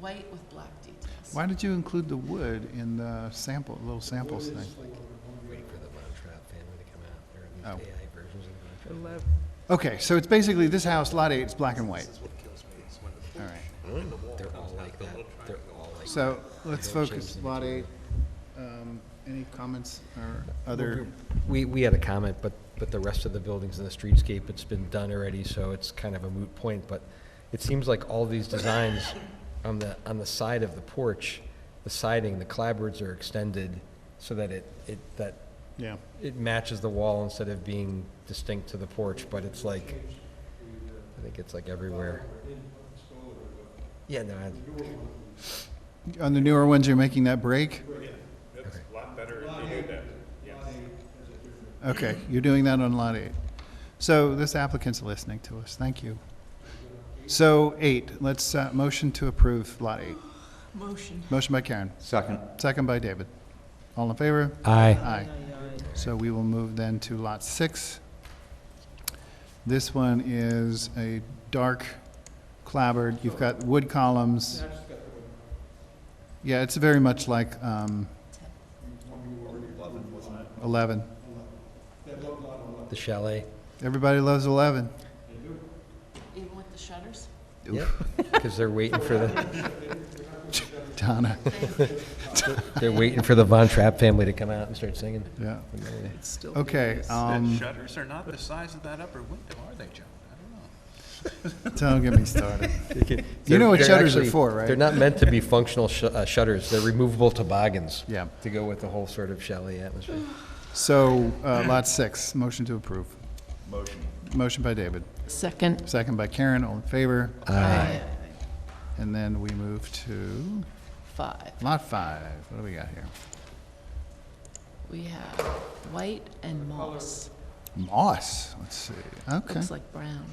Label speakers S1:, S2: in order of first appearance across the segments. S1: white with black details.
S2: Why did you include the wood in the sample, little samples thing?
S3: Waiting for the Von Trapp family to come out. There are these
S2: Oh.
S3: AI versions of Von Trapp.
S2: Okay, so it's basically this house, lot eight, it's black and white. All right,
S3: They're all like that. They're all like.
S2: so let's
S3: Don't change
S2: focus,
S3: the
S2: lot eight. Um, Any comments or other,
S3: We, we had a comment, but, but the rest of the buildings in the streetscape, it's been done already, so it's kind of a moot point, but it seems like all these designs on the, on the side of the porch, the siding, the clapboards are extended so that it, it, that
S2: yeah,
S3: it matches the wall instead of being distinct to the porch, but it's like, I think it's like everywhere. Yeah, no, I,
S2: on the newer ones, you're making that break?
S4: That's a lot better if you do that.
S2: Okay, you're doing that on lot eight. So this applicant's listening to us, thank you. So eight, let's, uh, motion to approve lot eight.
S1: Motion.
S2: Motion by Karen,
S5: Second.
S2: second by David. All in favor?
S3: Aye.
S2: Aye. So we will move then to lot six. This one is a dark clabbered, you've got wood columns. Yeah, it's very much like, um, eleven.
S3: the chalet.
S2: Everybody loves eleven.
S1: Even with the shutters?
S3: Yep, because they're waiting for the,
S2: Donna,
S3: they're waiting for the Von Trapp family to come out and start singing.
S2: yeah,
S6: It's still.
S2: okay, um,
S4: Shutters are not the size of that upper window, are they, John? I don't know.
S2: don't get me started.
S3: They're-
S2: know what
S3: they're
S2: shutters are
S3: actually-
S2: for, right?
S3: They're not meant to be functional sh- uh, shutters. They're removable toboggans.
S2: Yeah.
S3: To go with the whole sort of chalet atmosphere.
S2: So, uh, lot six, motion to approve. Motion. Motion by David,
S1: Second.
S2: second by Karen, all in favor,
S1: Aye.
S2: and then we move to
S1: Five.
S2: lot five, what do we got here?
S1: We have white and moss.
S2: Moss. Let's see. Okay.
S1: Looks like brown.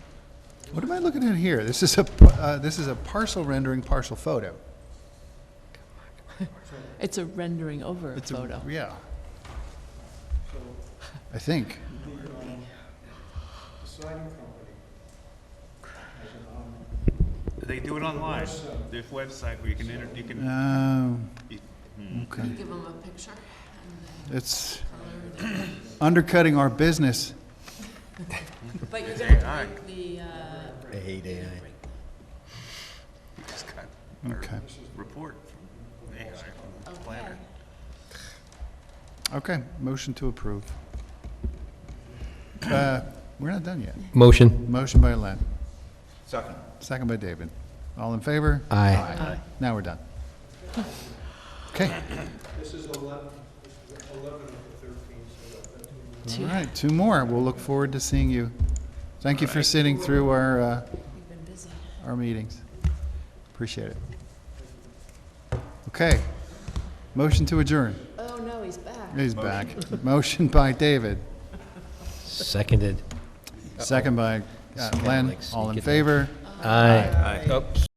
S2: What am I looking at here? This is a p- uh, this is a parcel rendering, partial photo.
S1: It's a rendering over a
S2: It's a-
S1: photo.
S2: Yeah. I think.
S4: They do it online. There's a website where you can enter, you can,
S2: Um,
S4: you-
S2: okay.
S1: Give them a picture and
S2: It's undercutting our business.
S1: then. But you're
S4: Aye.
S1: gonna break the, uh,
S3: I hate AI.
S4: you just got our
S2: Okay.
S4: report from AI, from the
S1: okay.
S4: planner.
S2: Okay. Motion to approve. Uh, we're not done yet.
S3: Motion.
S2: Motion by Len.
S5: Second.
S2: Second by David. All in favor?
S3: Aye.
S1: Aye.
S2: Now we're done. Okay.
S6: This is eleven, this is eleven of the thirteen, so that's.
S2: All right, two more. We'll look forward to seeing you. Thank you for sitting through our, uh,
S1: You've been busy.
S2: our meetings. Appreciate it. Okay. Motion to adjourn.
S1: Oh, no, he's back.
S2: He's back. Motion by David,
S3: Seconded.
S2: second by uh,
S3: Kinda
S2: Len.
S3: like
S2: All
S3: sneak it
S2: in
S3: in.
S2: favor?
S3: Aye. Oh. Aye.